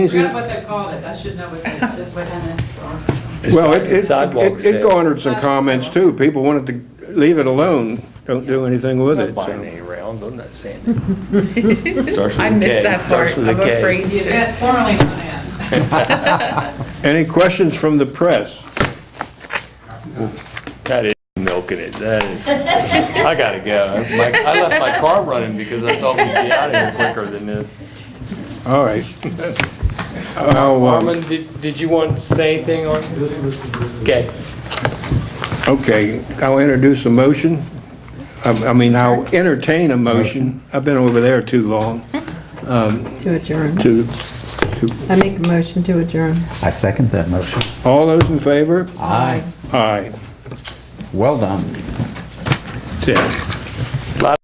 forgot what they called it, I should know what, they- just what kind of, Well, it, it- Sidewalks it, it that- garnered some comments too. People wanted to leave it alone, don't do anything with it, Buying so. any rounds, I'm not saying that. Starts with I a K, missed that part, starts with a I'm K. afraid the to. event formerly known as. Any questions from the press? That is milking it, that is. I gotta go. My- I left my car running because I thought we'd Uh, be out of here quicker than this. All right. I'll, um, Armin, did, did you want to say anything on? Okay. Okay, I'll introduce a motion. I I mean, I'll entertain a motion. I've been over there too long To adjourn. to, I make a motion to adjourn. I second that motion. all those in favor? Aye. Aye. Well done. Ted.